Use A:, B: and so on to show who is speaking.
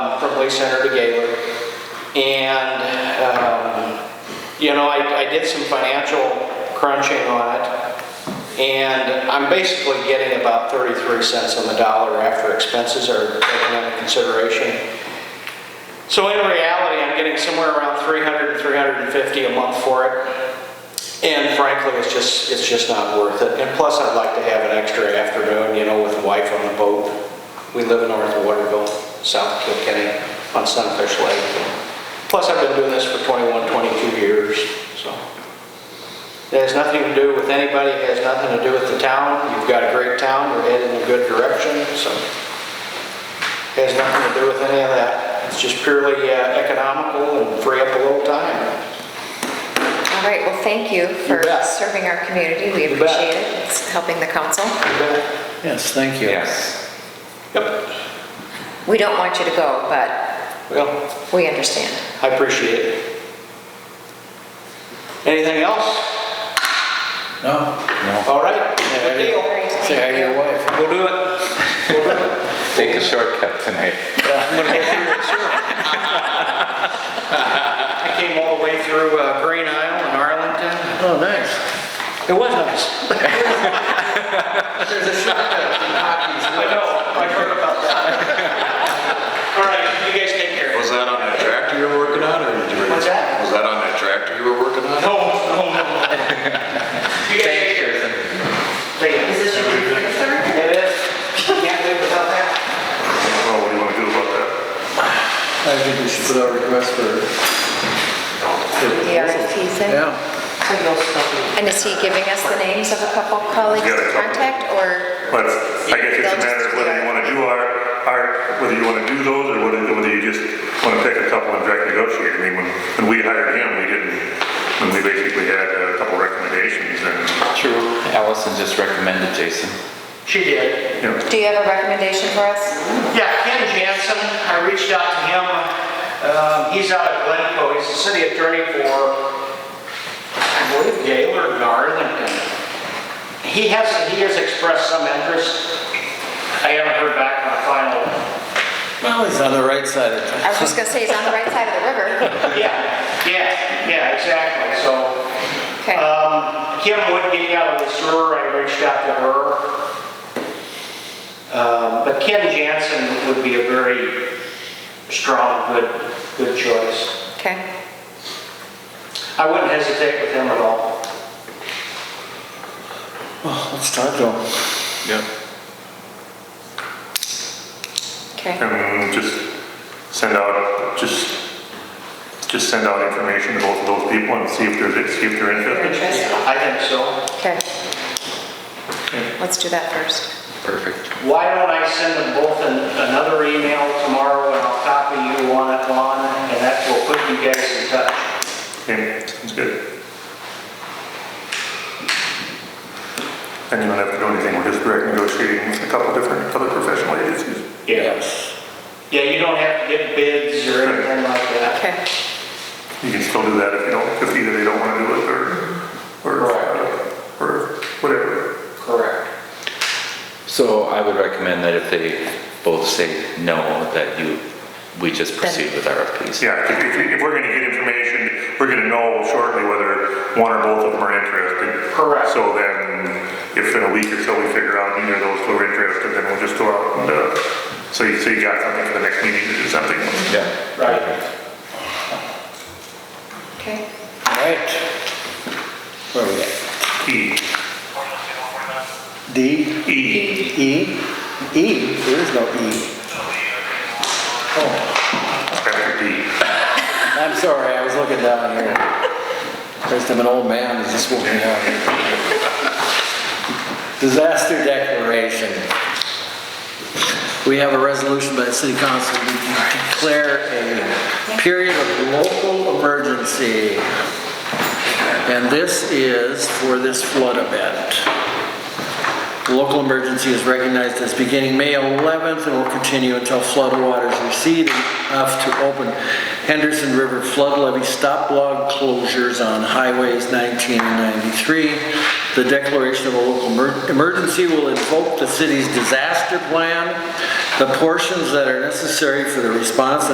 A: Center to Gaylord. And, um, you know, I, I did some financial crunching on it, and I'm basically getting about 33 cents on the dollar after expenses are taken into consideration. So in reality, I'm getting somewhere around 300, 350 a month for it. And frankly, it's just, it's just not worth it. And plus, I'd like to have an extra afternoon, you know, with the wife on the boat. We live north of Waterville, south of Kilkenny, on Sunfish Lake. Plus, I've been doing this for 21, 22 years, so. It has nothing to do with anybody, it has nothing to do with the town. You've got a great town, we're headed in a good direction, so. It Has nothing to do with any of that. It's just purely uh, economical and free up a little time.
B: All right, well, thank you for
A: bet.
B: serving our community. We
A: You bet.
B: appreciate it. It's helping the council.
C: Yes, thank you.
D: Yes.
A: Yep,
B: We don't want you to go, but
A: well,
B: we understand.
A: I appreciate it. Anything else?
C: No,
A: All right, good deal.
C: say hi to your wife.
A: We'll do it. We'll do it.
D: Take a shortcut tonight.
A: I'm gonna get through it soon. I came all the way through uh, Green Isle in Arlington.
C: Oh, nice.
A: It was nice.
C: There's a
A: I know, I heard about that. All right, you guys take care.
E: Was that on that tractor you were working on, or did you?
A: What's that?
E: Was that on that tractor you were working on?
A: No, no, no. You guys take care. Thank you.
F: Is this your precursor?
A: It is. Can't live without that.
E: Well, what do you want to do about that?
C: I think we should put out a request for.
B: The RFP thing?
C: Yeah,
F: So you'll still
B: And is he giving us the names of a couple colleagues
E: He's got a
B: to
E: couple.
B: contact, or?
G: But I guess it's a matter of whether you want to do our, our, whether you want to do those or whether, whether you just want to pick a couple and direct negotiate. I mean, when, when we hired him, we didn't, when we basically had a couple recommendations and,
D: True. Allison just recommended Jason.
A: She did.
G: you know,
B: Do you have a recommendation for us?
A: Yeah, Ken Jansen, I reached out to him. Um, He's out of Glencoe. He's the city attorney for, I believe, Gaylord and Arlington. He has, he has expressed some interest. I haven't heard back on the final.
C: well, he's on the right side of
B: I
C: town.
B: was just gonna say, he's on the right side of the river.
A: Yeah, yeah, yeah, exactly. So
B: Okay,
A: Um, Kim Woodgate out of the sewer, I reached out to her. Um, But Ken Jansen would be a very strong, good, good choice.
B: okay.
A: I wouldn't hesitate with him at all.
C: Oh, Let's talk to him.
D: Yep.
B: Okay,
G: and just send out, just, just send out information to both of those people and see if there's, see if they're interested.
B: Interest?
A: I think so.
B: okay. Let's do that first.
D: Perfect.
A: Why don't I send them both an- another email tomorrow and I'll copy you on it, Lon, and that will put you guys in touch.
G: Okay, sounds good. And you don't have to do anything, we're just direct negotiating with a couple different, other professional agencies.
C: Yes.
A: Yeah, you don't have to get bids or anything like that.
B: Okay,
G: You can still do that if you don't, if either they don't want to do it or, or, or whatever.
A: Correct.
D: So I would recommend that if they both say no, that you, we just proceed with RFPs.
G: Yeah, if, if- if we're gonna get information, we're gonna know shortly whether one or both of them are interested.
A: Correct.
G: So then, if in a week or so we figure out neither of those two are interested, then we'll just go out and, uh, so you, so you got something for the next meeting to do something.
D: Yeah.
A: Right.
B: okay.
C: All right. Where are we at?
G: E,
C: D,
G: E,
C: E, E, there is no E. Oh,
G: after D.
C: I'm sorry, I was looking down here. First, I'm an old man, who's just walking down here. Disaster declaration. We have a resolution by the city council to declare a period of local emergency. And this is for this flood event. The local emergency is recognized as beginning May 11th and will continue until flood waters recede enough to open Henderson River flood levee stop log closures on highways 19 and 93. The declaration of a local emer- emergency will invoke the city's disaster plan, the portions that are necessary for the response